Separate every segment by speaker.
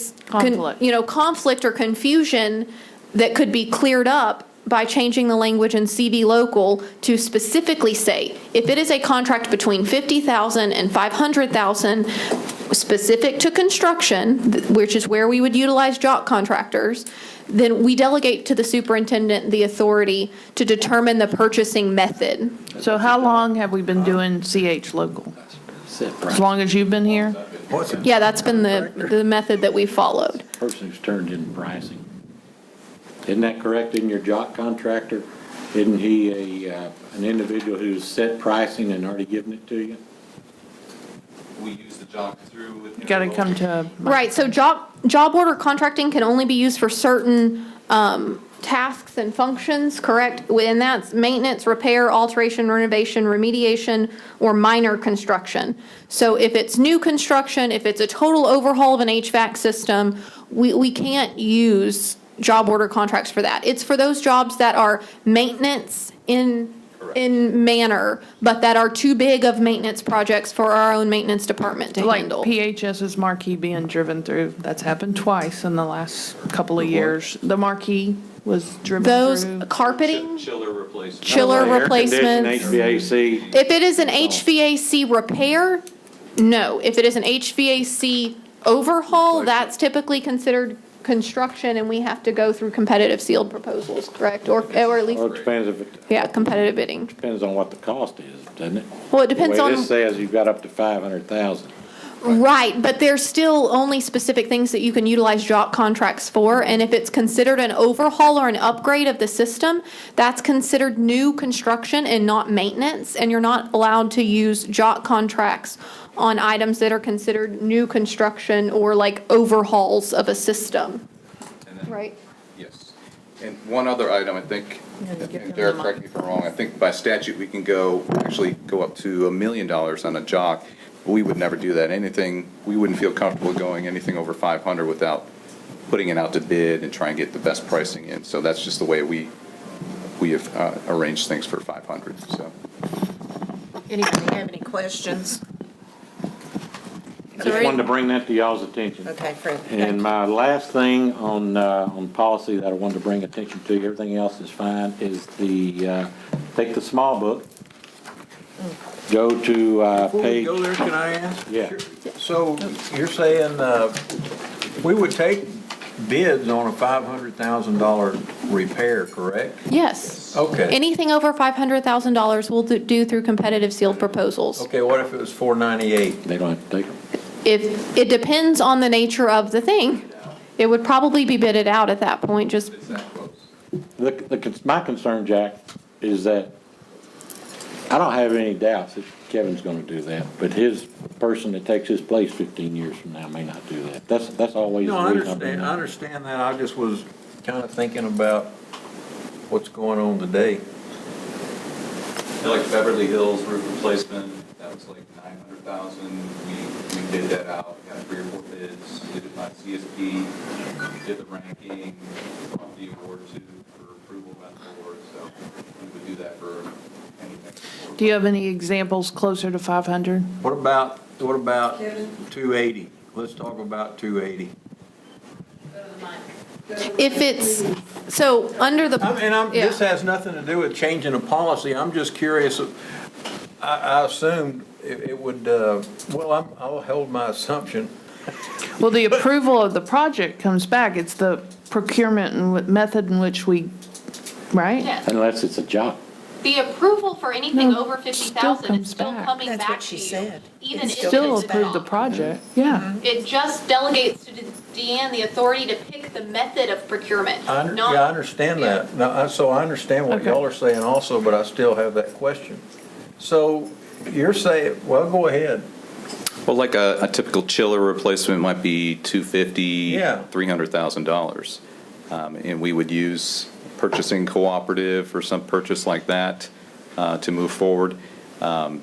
Speaker 1: is, con-
Speaker 2: Conflict.
Speaker 1: you know, conflict or confusion that could be cleared up by changing the language in CD local to specifically say, if it is a contract between 50,000 and 500,000, specific to construction, th- which is where we would utilize jock contractors, then we delegate to the superintendent the authority to determine the purchasing method.
Speaker 2: So how long have we been doing CH local? As long as you've been here?
Speaker 1: Yeah, that's been the, the method that we followed.
Speaker 3: person who's turned in pricing. Isn't that correct? Isn't your jock contractor, isn't he a, uh, an individual who's set pricing and already given it to you?
Speaker 4: we use the jock through with.
Speaker 2: You Got to come to,
Speaker 1: Right, so job, job order contracting can only be used for certain um, tasks and functions, correct? And that's maintenance, repair, alteration, renovation, remediation, or minor construction. So if it's new construction, if it's a total overhaul of an HVAC system, we, we can't use job order contracts for that. It's for those jobs that are maintenance in, in manner, but that are too big of maintenance projects for our own maintenance department to
Speaker 2: like
Speaker 1: handle.
Speaker 2: PHS's marquee being driven through. That's happened twice in the last couple of years. The marquee was driven
Speaker 1: Those
Speaker 2: through.
Speaker 1: carpeting,
Speaker 4: Chiller replacement.
Speaker 1: chiller replacements.
Speaker 3: Air conditioning, HVAC,
Speaker 1: If it is an HVAC repair, no. If it is an HVAC overhaul, that's typically considered construction and we have to go through competitive sealed proposals, correct? Or, or at
Speaker 3: or it
Speaker 1: least,
Speaker 3: depends if, it
Speaker 1: yeah, competitive bidding.
Speaker 3: depends on what the cost is, doesn't it?
Speaker 1: Well, it depends
Speaker 3: The way
Speaker 1: on-
Speaker 3: this says, you've got up to five hundred thousand.
Speaker 1: Right, but there's still only specific things that you can utilize job contracts for. And if it's considered an overhaul or an upgrade of the system, that's considered new construction and not maintenance. And you're not allowed to use job contracts on items that are considered new construction or like overhauls of a system,
Speaker 4: And then-
Speaker 1: right?
Speaker 4: Yes. And one other item, I think, and Derek, correct me if I'm wrong, I think by statute, we can go, actually go up to a million dollars on a jock. We would never do that. Anything, we wouldn't feel comfortable going anything over 500 without putting it out to bid and trying to get the best pricing in. So that's just the way we, we have uh, arranged things for 500, so.
Speaker 5: Anybody have any questions?
Speaker 3: Just wanted to bring that to y'all's attention.
Speaker 5: Okay, Fred.
Speaker 3: And my last thing on, uh, on policy that I wanted to bring attention to, everything else is fine, is the, uh, take the small book. Go to, uh,
Speaker 6: Before we
Speaker 3: page,
Speaker 6: go there, can I ask?
Speaker 3: Yeah.
Speaker 6: So you're saying, uh, we would take bids on a five hundred thousand dollar repair, correct?
Speaker 1: Yes.
Speaker 6: Okay,
Speaker 1: Anything over $500,000 we'll do- do through competitive sealed proposals.
Speaker 6: okay, what if it was four ninety-eight?
Speaker 3: they don't have to take them.
Speaker 1: If, it depends on the nature of the thing. It would probably be bidded out at that point, just
Speaker 4: It's that close.
Speaker 3: The, the, cons- my concern, Jack, is that I don't have any doubts that Kevin's gonna do that, but his person that takes his place fifteen years from now may not do that. That's, that's always the
Speaker 6: No, I
Speaker 3: reason I bring
Speaker 6: understand,
Speaker 3: that
Speaker 6: I
Speaker 3: up.
Speaker 6: understand that, I just was kinda thinking about what's going on today.
Speaker 4: Like Beverly Hills roof replacement, that was like nine hundred thousand. We, we bid that out, got three or four bids, did it by CSP, did the ranking, brought the award to, for approval by the board, so we would do that for any next. award.
Speaker 2: Do you have any examples closer to 500?
Speaker 6: What about, what about two eighty? Let's talk about two eighty.
Speaker 1: If it's, so under the.
Speaker 6: I'm- And I'm,
Speaker 1: Yeah.
Speaker 6: this has nothing to do with changing a policy, I'm just curious, I, I assumed it, it would, uh, well, I'm, I'll hold my assumption.
Speaker 2: Well, the approval of the project comes back. It's the procurement and what- method in which we, right?
Speaker 1: Yes.
Speaker 3: Unless it's a job.
Speaker 1: The approval for anything
Speaker 2: No,
Speaker 1: over
Speaker 2: it still
Speaker 1: 50,000
Speaker 2: comes
Speaker 1: is still
Speaker 2: back.
Speaker 1: coming back to you.
Speaker 5: That's what she said.
Speaker 1: Even
Speaker 5: It's
Speaker 1: if
Speaker 2: Still
Speaker 1: it's
Speaker 2: approve the
Speaker 1: not.
Speaker 2: project, yeah.
Speaker 1: It just delegates to De- Deanne the authority to pick the method of procurement,
Speaker 6: I, under-
Speaker 1: not-
Speaker 6: yeah, I understand that, now, I- so I understand what
Speaker 2: Okay.
Speaker 6: y'all are saying also, but I still have that question. So, you're saying, well, go ahead,
Speaker 4: Well, like a, a typical chiller replacement might be two fifty,
Speaker 6: Yeah.
Speaker 4: three hundred thousand dollars. Um, and we would use purchasing cooperative or some purchase like that, uh, to move forward. Um,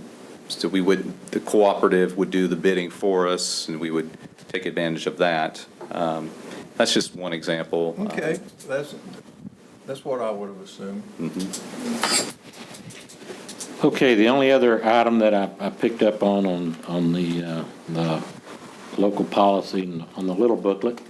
Speaker 4: so we would, the cooperative would do the bidding for us and we would take advantage of that. Um, that's just one example. Um,
Speaker 6: okay, Uh, that's, that's what I would have assumed.
Speaker 3: Okay, the only other item that I, I picked up on, on, on the, uh, the local policy and on the little booklet